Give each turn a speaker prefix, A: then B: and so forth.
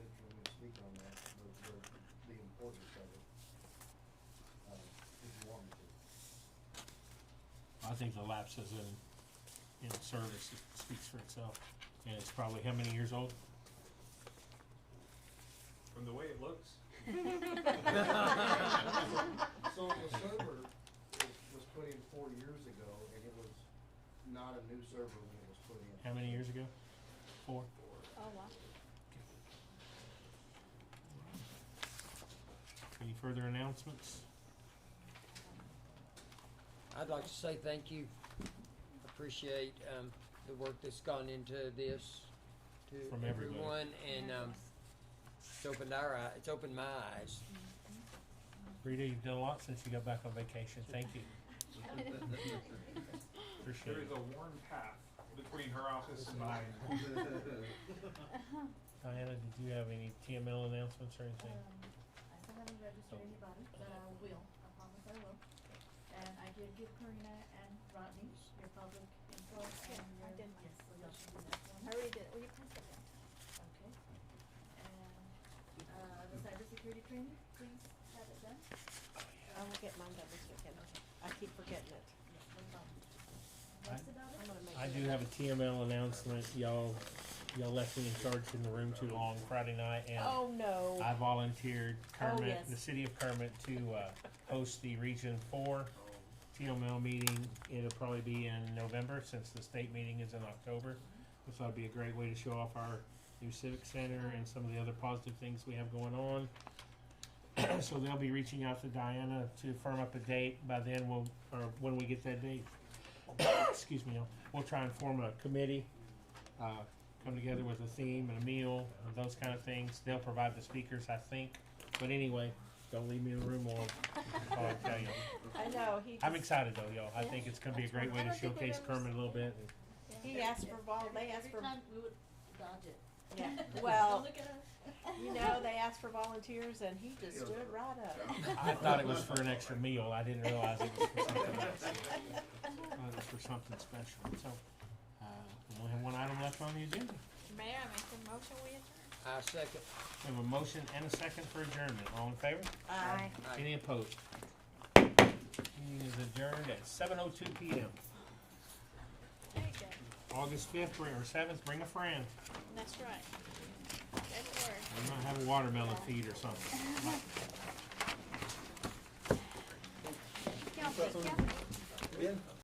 A: think the lapses in, in service it speaks for itself. And it's probably how many years old?
B: From the way it looks.
C: So the server was, was put in four years ago, and it was not a new server when it was put in.
A: How many years ago? Four?
D: Oh, wow.
A: Any further announcements?
E: I'd like to say thank you. Appreciate, um, the work that's gone into this to
A: From everybody.
E: everyone and, um, it's opened our eye, it's opened my eyes.
A: Rita, you've done a lot since you got back on vacation. Thank you. Appreciate
B: There is
A: it.
B: a worn path between her office and mine.
A: Diana, did you have any TML announcements or anything?
F: Um, I still haven't registered anybody, but I will, I promise I will. And I did give Karina and Rodney your public info
D: Yeah,
F: and your.
D: I did mine.
F: Yes, so y'all should do that
D: I
F: one.
D: already did. Will you pass that down?
F: Okay. And, uh, the cybersecurity training, please have it done.
G: I will get mine done this weekend. I keep forgetting it.
F: Yes, no problem.
A: I-
F: That's about
G: I'm
F: it.
G: gonna make
A: I
G: it
A: do
G: a-
A: have a TML announcement. Y'all, y'all left me in charge in the room too long Friday night and
G: Oh, no.
A: I volunteered Kermit,
G: yes.
A: the city of Kermit, to, uh, host the Region Four TML meeting. It'll probably be in November, since the state meeting is in October. This would be a great way to show off our new civic center and some of the other positive things we have going on. So they'll be reaching out to Diana to firm up a date. By then, we'll, or when we get that date, excuse me, we'll try and form a committee, uh, come together with a theme and a meal and those kind of things. They'll provide the speakers, I think. But anyway, don't leave me in the room alone. That's all I tell you.
G: I know, he
A: I'm
G: just-
A: excited though, y'all. I think it's gonna be a great way
D: I
A: to
D: don't think we've
A: showcase
D: ever
A: Kermit a little bit.
G: he asked for vol, they asked
F: Every
G: for,
F: time we would dodge it.
G: yeah,
F: Don't
G: well,
F: look at us.
G: you know, they asked for volunteers and he just stood right up.
A: I thought it was for an extra meal. I didn't realize it was for something else. Thought it was Uh, for something special. So, uh, we only have one item left on the agenda.
D: Mayor, I make the motion, we adjourn.
E: I second.
A: We have a motion and a second for adjournment. All in favor?
G: Aye.
E: Aye.
A: Any opposed? Meeting is adjourned at seven oh two P M.
D: There you go.
A: August fifth or seventh, bring a friend.
D: That's right. Good work.
A: We might have a watermelon feed or something.
D: Count it, count it.